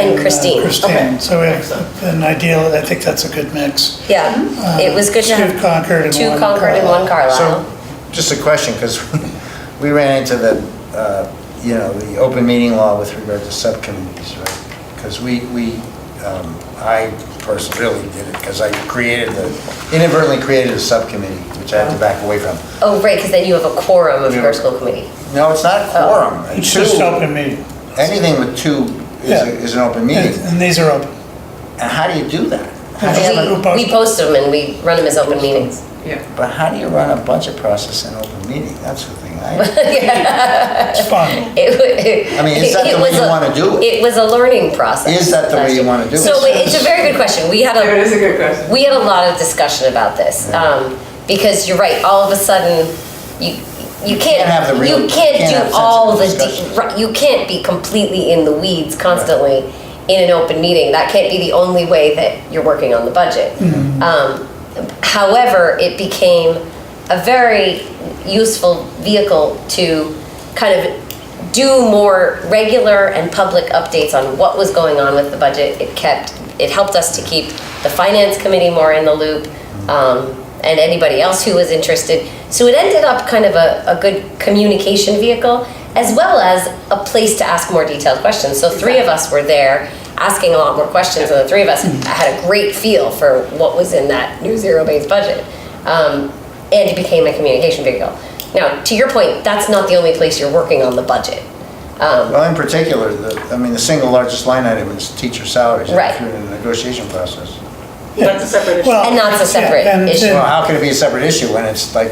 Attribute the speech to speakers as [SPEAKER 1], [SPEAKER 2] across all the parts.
[SPEAKER 1] And
[SPEAKER 2] uh,
[SPEAKER 1] Christine. Okay.
[SPEAKER 2] Christine, so we have an ideal, I think that's a good mix.
[SPEAKER 1] Yeah, it was good to
[SPEAKER 2] Um, Two
[SPEAKER 1] have
[SPEAKER 2] Concord and
[SPEAKER 1] two
[SPEAKER 2] one
[SPEAKER 1] Concord and one
[SPEAKER 3] So,
[SPEAKER 1] Carlisle.
[SPEAKER 3] just a question, because we ran into the, uh, you know, the open meeting law with regard to subcommittees, right? Because we, we, um, I personally did it, because I created the, inadvertently created a subcommittee, which I had to back away from.
[SPEAKER 1] Oh, right, because then you have a quorum of your
[SPEAKER 3] Yeah.
[SPEAKER 1] school committee.
[SPEAKER 3] No, it's not a quorum.
[SPEAKER 2] It's just
[SPEAKER 3] Two-
[SPEAKER 2] open meeting.
[SPEAKER 3] Anything with two is,
[SPEAKER 2] Yeah.
[SPEAKER 3] a- is an open
[SPEAKER 2] And
[SPEAKER 3] meeting.
[SPEAKER 2] and these are open.
[SPEAKER 3] And how do you do that? How do
[SPEAKER 2] Yeah,
[SPEAKER 3] you-
[SPEAKER 2] but who posts
[SPEAKER 1] We we
[SPEAKER 2] them?
[SPEAKER 1] post them and we run them as open meetings.
[SPEAKER 3] But how do you run a budget process in open meeting? That's the thing I,
[SPEAKER 2] It's fun.
[SPEAKER 1] It wa-
[SPEAKER 3] I mean, is that the
[SPEAKER 1] it
[SPEAKER 3] way
[SPEAKER 1] was
[SPEAKER 3] you
[SPEAKER 1] a-
[SPEAKER 3] wanna do it?
[SPEAKER 1] It was a learning process.
[SPEAKER 3] Is that the way
[SPEAKER 1] last
[SPEAKER 3] you
[SPEAKER 1] year.
[SPEAKER 3] wanna do it?
[SPEAKER 1] So it's a very good question. We had a.
[SPEAKER 4] That is a good question.
[SPEAKER 1] we had a lot of discussion about this um, because you're right. All of a sudden, you you can't
[SPEAKER 3] can't have the real-
[SPEAKER 1] you
[SPEAKER 3] you can't
[SPEAKER 1] can't
[SPEAKER 3] have
[SPEAKER 1] do all the
[SPEAKER 3] sensible
[SPEAKER 1] de-
[SPEAKER 3] discussions.
[SPEAKER 1] right, you can't be completely in the weeds constantly in an open meeting. That can't be the only way that you're working on the budget. Um, however, it became a very useful vehicle to kind of do more regular and public updates on what was going on with the budget. It kept, it helped us to keep the finance committee more in the loop um, and anybody else who was interested. So it ended up kind of a, a good communication vehicle as well as a place to ask more detailed questions. So three of us were there asking a lot more questions and the three of us had a great feel for what was in that new zero-based budget. Um, and it became a communication vehicle. Now, to your point, that's not the only place you're working on the budget. Um,
[SPEAKER 3] well, in particular, the, I mean, the single largest line item is teacher salaries.
[SPEAKER 1] Right.
[SPEAKER 3] If you're in the negotiation process.
[SPEAKER 4] That's a separate issue.
[SPEAKER 2] Well,
[SPEAKER 1] And that's a
[SPEAKER 2] yeah,
[SPEAKER 1] separate
[SPEAKER 2] and-
[SPEAKER 1] issue.
[SPEAKER 3] Well, how can it be a separate issue when it's like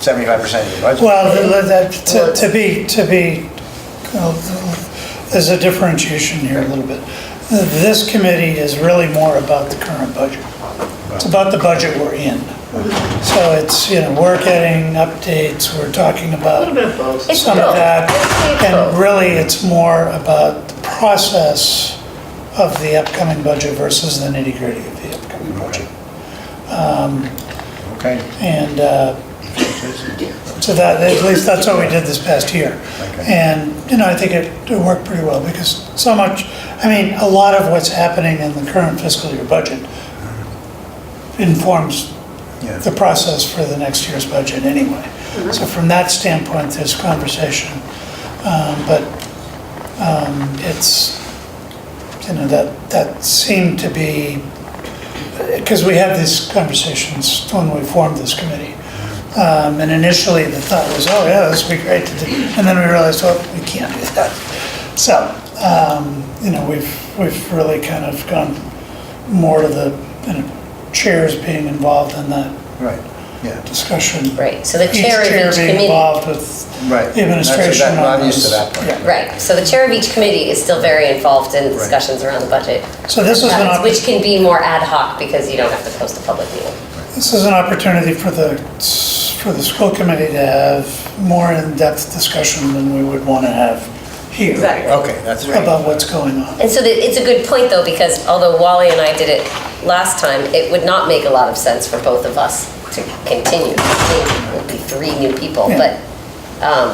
[SPEAKER 3] seventy-five percent of your budget?
[SPEAKER 2] Well, th- that, to- to be, to be, uh, there's a differentiation here a little bit. This committee is really more about the current budget. It's about the budget we're in. So it's, you know, we're getting updates, we're talking about
[SPEAKER 1] It's
[SPEAKER 2] some of
[SPEAKER 1] both.
[SPEAKER 2] that.
[SPEAKER 1] It's
[SPEAKER 2] And
[SPEAKER 1] both.
[SPEAKER 2] really, it's more about the process of the upcoming budget versus the nitty-gritty of the upcoming budget.
[SPEAKER 3] Okay.
[SPEAKER 2] And uh, so that, at least that's what we did this past year.
[SPEAKER 3] Okay.
[SPEAKER 2] And, you know, I think it it worked pretty well because so much, I mean, a lot of what's happening in the current fiscal year budget informs
[SPEAKER 3] Yeah.
[SPEAKER 2] the process for the next year's budget anyway. So from that standpoint, there's conversation. Um, But um, it's, you know, that, that seemed to be, because we had these conversations when we formed this committee. Um, And initially, the thought was, oh, yeah, this would be great to do. And then we realized, well, we can't do that. So, um, you know, we've, we've really kind of gone more to the, you know, chairs being involved in that
[SPEAKER 3] Right, yeah,
[SPEAKER 2] discussion.
[SPEAKER 1] Right, so the chair of each
[SPEAKER 2] being
[SPEAKER 1] committee.
[SPEAKER 2] involved with
[SPEAKER 3] right.
[SPEAKER 2] the administration.
[SPEAKER 3] That's- that- I'm
[SPEAKER 2] on
[SPEAKER 3] used to
[SPEAKER 2] those.
[SPEAKER 3] that part.
[SPEAKER 2] Yeah.
[SPEAKER 1] Right, so the chair of each committee is still very involved in discussions around the budget.
[SPEAKER 2] So this is an
[SPEAKER 1] Uh,
[SPEAKER 2] opportunity.
[SPEAKER 1] Which can be more ad hoc because you don't have to post a public meeting.
[SPEAKER 2] This is an opportunity for the, for the school committee to have more in-depth discussion than we would want to have here.
[SPEAKER 4] Exactly.
[SPEAKER 3] Okay, that's right.
[SPEAKER 2] About what's going on.
[SPEAKER 1] And so that, it's a good point though, because although Wally and I did it last time, it would not make a lot of sense for both of us to continue. It would be three new people,
[SPEAKER 2] Yeah.
[SPEAKER 1] but, um,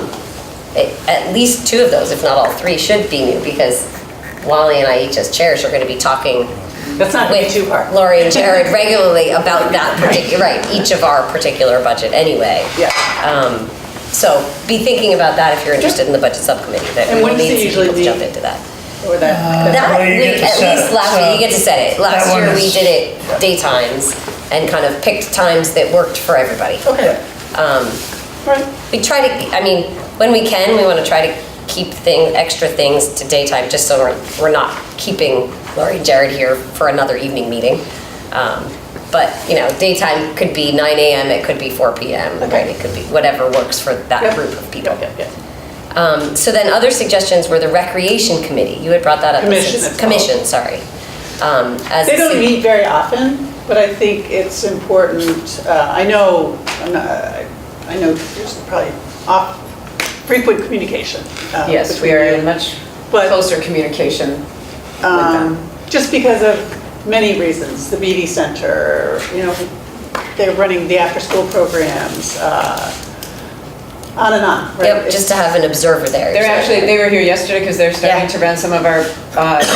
[SPEAKER 1] it- at least two of those, if not all three, should be new because Wally and I each as chairs are gonna be talking
[SPEAKER 4] That's not way
[SPEAKER 1] with
[SPEAKER 4] too hard.
[SPEAKER 1] Lori and Jared regularly about that particular, right, each of our particular budget anyway.
[SPEAKER 4] Yeah.
[SPEAKER 1] Um, so be thinking about that if you're interested in the budget subcommittee, that
[SPEAKER 4] And
[SPEAKER 1] we
[SPEAKER 4] when does
[SPEAKER 1] need
[SPEAKER 4] it
[SPEAKER 1] some people to
[SPEAKER 4] usually
[SPEAKER 1] jump
[SPEAKER 4] meet?
[SPEAKER 1] into that.
[SPEAKER 4] Uh, Or that.
[SPEAKER 1] That,
[SPEAKER 2] Well, you
[SPEAKER 1] we,
[SPEAKER 2] get to
[SPEAKER 1] at
[SPEAKER 2] set
[SPEAKER 1] least
[SPEAKER 2] it,
[SPEAKER 1] last
[SPEAKER 2] so
[SPEAKER 1] year, you get to set it. Last
[SPEAKER 2] that one
[SPEAKER 1] year, we
[SPEAKER 2] is-
[SPEAKER 1] did it daytimes and kind of picked times that worked for everybody.
[SPEAKER 4] Okay. Right.
[SPEAKER 1] We try to, I mean, when we can, we want to try to keep thing, extra things to daytime, just so we're, we're not keeping Lori and Jared here for another evening meeting. Um, But, you know, daytime could be nine AM, it could be four PM, right?
[SPEAKER 4] Okay.
[SPEAKER 1] It could be whatever works for that
[SPEAKER 4] Yep.
[SPEAKER 1] group of people.
[SPEAKER 4] Yep, yep, yep.
[SPEAKER 1] Um, So then other suggestions were the recreation committee. You had brought that up. as-
[SPEAKER 4] Commission, it's called.
[SPEAKER 1] Commission, sorry. Um, as
[SPEAKER 4] They
[SPEAKER 1] a
[SPEAKER 4] don't
[SPEAKER 1] sug-
[SPEAKER 4] meet very often, but I think it's important, uh, I know, I'm not- I I know there's probably off- frequent communication. uh,
[SPEAKER 5] Yes, we
[SPEAKER 4] between
[SPEAKER 5] are
[SPEAKER 4] you.
[SPEAKER 5] in much
[SPEAKER 4] But- um,
[SPEAKER 5] closer communication with them.
[SPEAKER 4] just because of many reasons, the BD Center, you know, they're running the after-school programs, uh, on and on, right?
[SPEAKER 1] Yep, just to have an observer there.
[SPEAKER 5] They're
[SPEAKER 1] usually.
[SPEAKER 5] actually, they were here yesterday because they're starting
[SPEAKER 1] Yeah.
[SPEAKER 5] to run some of our uh,